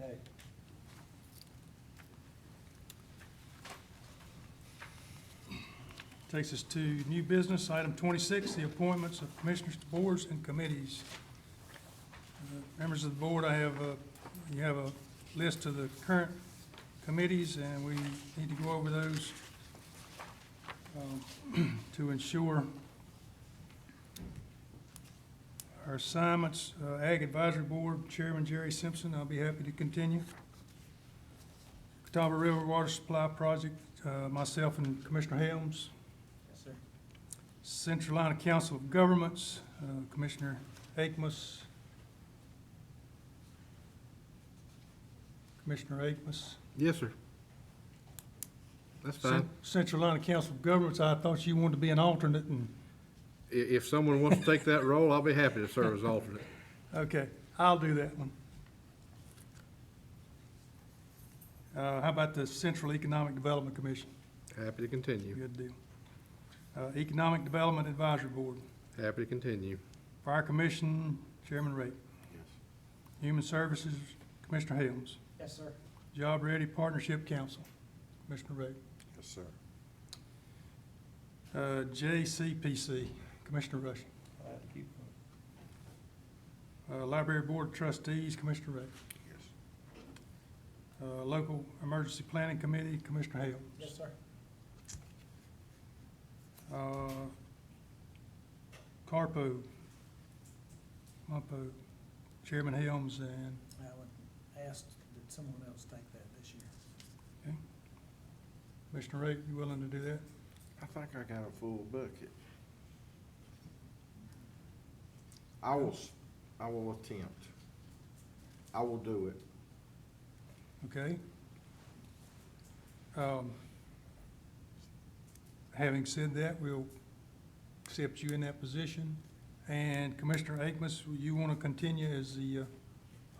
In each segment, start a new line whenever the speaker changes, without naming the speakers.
Aye.
Takes us to new business, item twenty-six, the appointments of commissioners to boards and committees. Uh, Members of the board, I have, uh, you have a list of the current committees, and we need to go over those um, to ensure our assignments, Uh, Ag Advisory Board, Chairman Jerry Simpson, I'll be happy to continue. Catawba River Water Supply Project, uh, myself and Commissioner Helms.
Yes, sir.
Central Line Council of Governments, uh, Commissioner Akmus. Commissioner Akmus.
Yes, sir. That's fine.
Cen- Central Line Council of Governments, I thought you wanted to be an alternate and,
I- if someone wants to take that role, I'll be happy to serve as alternate.
okay, I'll do that one. Uh, How about the Central Economic Development Commission?
Happy to continue.
Good deal. Uh, Economic Development Advisory Board.
Happy to continue.
Fire Commission, Chairman Ray. Human Services, Commissioner Helms.
Yes, sir.
Job Ready Partnership Council, Commissioner Ray.
Yes, sir.
Uh, JCPC, Commissioner Rushing.
I'll have to keep them.
Uh, Library Board of Trustees, Commissioner Ray.
Yes.
Uh, Local Emergency Planning Committee, Commissioner Helms.
Yes, sir.
Uh, Carpo, Mumpo, Chairman Helms, and
I would ask that someone else take that this year.
Commissioner Ray, you willing to do that?
I think I got a full bucket. I will, s- I will attempt. I will do it.
Okay. Um, Having said that, we'll accept you in that position. And Commissioner Akmus, you want to continue as the uh,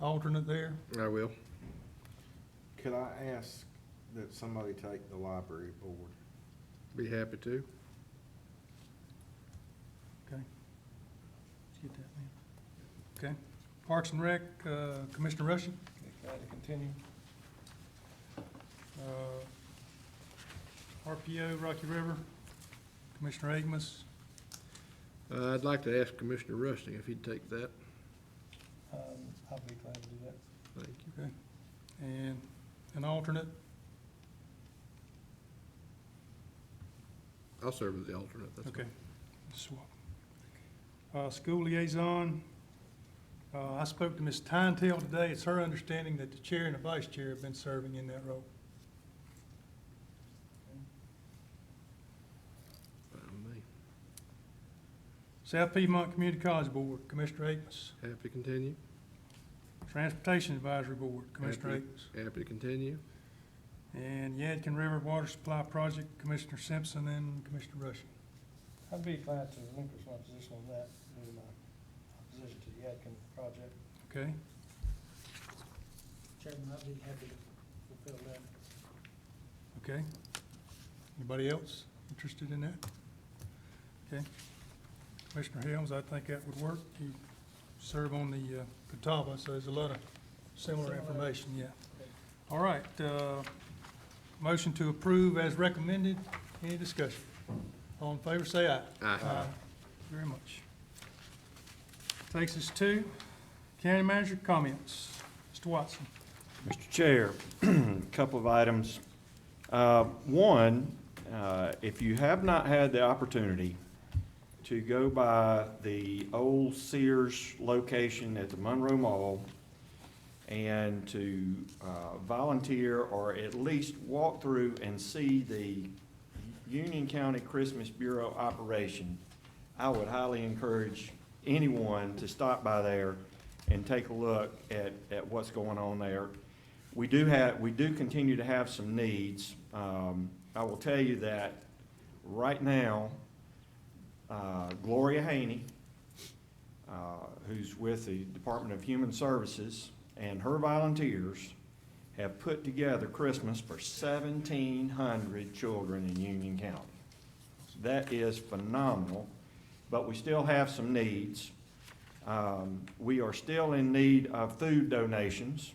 alternate there?
I will.
Could I ask that somebody take the library board?
Be happy to.
Okay. Let's get that then. Okay. Parks and Rec, uh, Commissioner Rushing?
Glad to continue.
Uh, RPO, Rocky River, Commissioner Akmus.
Uh, I'd like to ask Commissioner Rusting if he'd take that.
Um, I'll be glad to do that.
Thank you.
Okay. And an alternate?
I'll serve as the alternate. That's
Okay. Swap. Uh, School liaison, uh, I spoke to Ms. Tyntail today. It's her understanding that the chair and the vice chair have been serving in that role.
fine with me.
South Piedmont Community College Board, Commissioner Akins.
Happy to continue.
Transportation Advisory Board, Commissioner
Happy-
Akins.
Happy to continue.
And Yadkin River Water Supply Project, Commissioner Simpson and Commissioner Rushing.
I'd be glad to relinquish my position on that, due to my opposition to the Yadkin project.
Okay?
Chairman, I'd be happy to fulfill that.
Okay. Anybody else interested in that? Okay. Commissioner Helms, I think that would work. You serve on the uh, Catawba, so there's a lot of similar
Similar.
information, yeah. All right, uh, motion to approve as recommended. Any discussion? All in favor, say aye.
Aye.
Very much. Takes us to county manager comments. Mr. Watson.
Mr. Chair, a couple of items. Uh, One, uh, if you have not had the opportunity to go by the old Sears location at the Monroe Mall and to uh, volunteer or at least walk through and see the Union County Christmas Bureau operation, I would highly encourage anyone to stop by there and take a look at, at what's going on there. We do have, we do continue to have some needs. Um, I will tell you that right now, uh, Gloria Haney, uh, who's with the Department of Human Services, and her volunteers have put together Christmas for seventeen hundred children in Union County. That is phenomenal, but we still have some needs. Um, We are still in need of food donations.